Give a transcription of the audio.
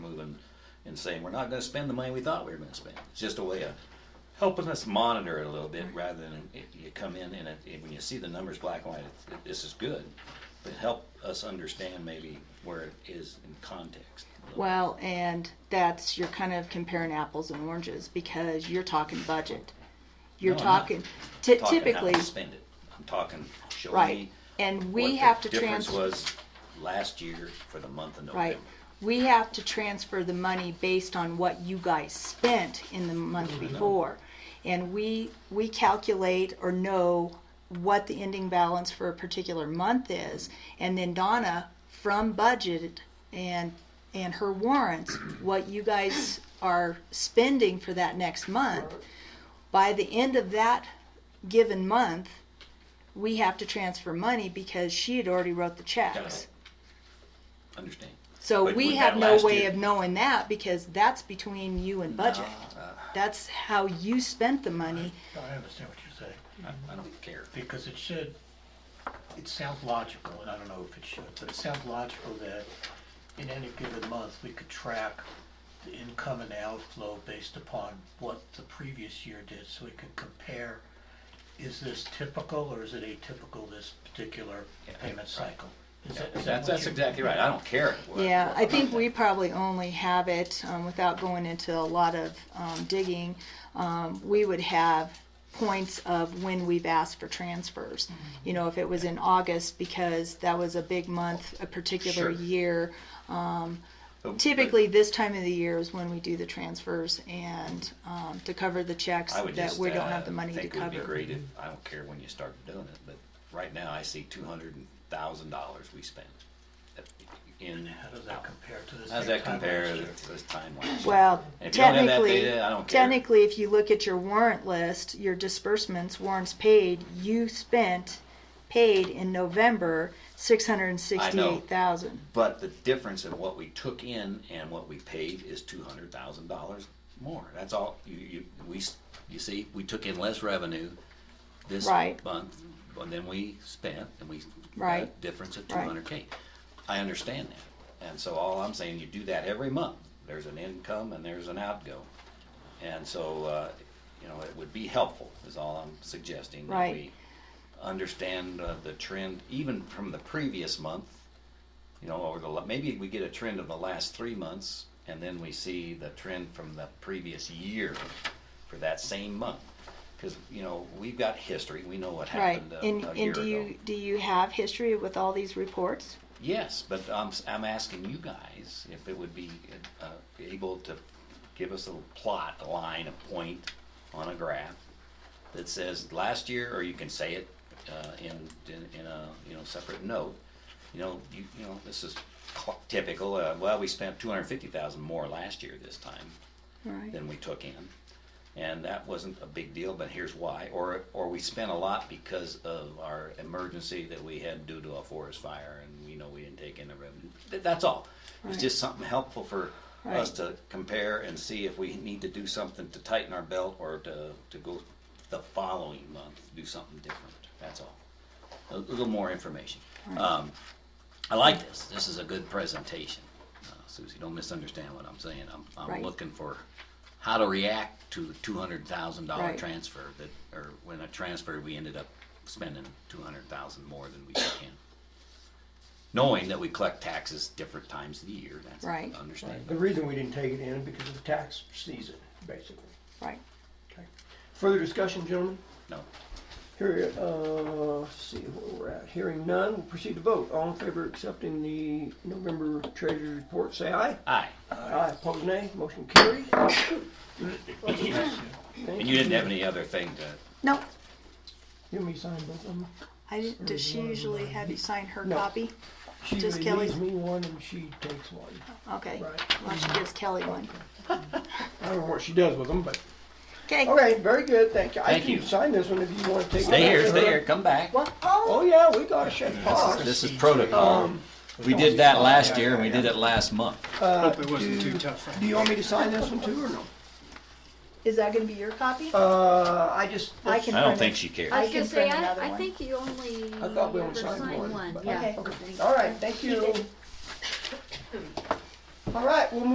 and saying, we're not gonna spend the money we thought we were gonna spend. It's just a way of helping us monitor it a little bit rather than if you come in and it, and when you see the numbers black and white, it- it- this is good. But help us understand maybe where it is in context. Well, and that's you're kind of comparing apples and oranges because you're talking budget. You're No, I'm not talking, ty- Talking how typically, to Spend it. I'm talking, show right? me And what we the have to difference transfer. was last year for the month of Right. November. We have to transfer the money based on what you guys spent in the month before. And we, we calculate or know what the ending balance for a particular month is. And then Donna, from budget and, and her warrants, what you guys are spending for that next month. By the end of that given month, we have to transfer money because she had already wrote the checks. Understand? So But we with have that no last way year- of knowing that because that's between you and budget. uh, That's how you spent the money. I understand what you're saying, I, I don't care. because it should, it sounds logical, and I don't know if it should, but it sounds logical that in any given month, we could track the income and outflow based upon what the previous year did, so we could compare, is this typical or is it atypical this particular payment cycle? Is that- is that That's, what that's you- exactly right. I don't care. what- Yeah, what- I think we probably only have it, um, without going into a lot of, um, digging, um, we would have points of when we've asked for transfers. Mm-hmm. You know, if it was in August because that was a big month, a particular Sure. year. but- but- Typically, this time of the year is when we do the transfers and, um, to cover the checks I would that just, we don't uh, have the money to think it would be cover. great if- I don't care when you start doing it, but right now I see two hundred thousand dollars we spent. In, How does that compare to the same time last year? how's that compare to this time last year? Well, If you don't have that technically, data, I don't care. technically, if you look at your warrant list, your disbursements, warrants paid, you spent, paid in November, six hundred and sixty-eight thousand. But the difference in what we took in and what we paid is two hundred thousand dollars more. That's all, you, you, we, s- you see, we took in less revenue this Right. month than we spent, and we. got a Right. Difference of two Right. hundred K. I understand that, and so all I'm saying, you do that every month. There's an income and there's an outgo. And so, uh, you know, it would be helpful, is all I'm suggesting. that Right. we Understand uh, the trend, even from the previous month, you know, over the, la- maybe we get a trend of the last three months, and then we see the trend from the previous year for that same month. Because, you know, we've got history, we know what Right, happened uh, a and, a year and ago. do you, do you have history with all these reports? Yes, but I'm, s- I'm asking you guys if it would be uh, able to give us a plot, a line, a point on a graph that says last year, or you can say it uh, in, in, in a, you know, separate note. You know, you, you know, this is cl- typical, uh, well, we spent two hundred and fifty thousand more last year this time Right. than we took in. And that wasn't a big deal, but here's why. Or, or we spent a lot because of our emergency that we had due to a forest fire and, you know, we didn't take in the revenue. Th- That's all. Right. It's just something helpful for us Right. to compare and see if we need to do something to tighten our belt or to, to go the following month, do something different. That's all. A little more information. Um, I like this. This is a good presentation. Uh, Susie, don't misunderstand what I'm saying. I'm, I'm Right. looking for how to react to the two hundred thousand dollar Right. transfer that, or when a transfer, we ended up spending two hundred thousand more than we took in. Knowing that we collect taxes different times of the year, that's Right. understandable. The reason we didn't take it in is because of the tax season, basically. Right, Okay. Further discussion, gentlemen? No, Here, uh, let's see where we're at. Hearing none, we'll proceed to vote. All in favor of accepting the November treasurer's report, say aye. aye. Aye, opposed nay, motion carries. And you didn't have any other thing to, no, You and me sign both of them. I, didn't- does she usually have you sign her Mm-hmm. No. copy? She Just usually Kelly's? leaves me one and she takes one. Okay, Right. Mm-hmm. well, she gives Kelly one. I don't know what she does with them, but. Okay, Okay, very good, thank you. I Thank can you. sign this one if you want to take it. stay here, Sure. stay here, come back. well, oh, Oh, yeah, we gotta shake paws. This is protocol. We did that last year and we did it last month. Hope it wasn't too tough. Do you want me to sign this one too or no? is that gonna be your copy? Uh, I just. I can I print don't it. think she cares. I I was can gonna say, print another I, one. I think you only I thought we only ever signed one, signed one, but- yeah. Okay. I think. All right, thank you. All right, we'll move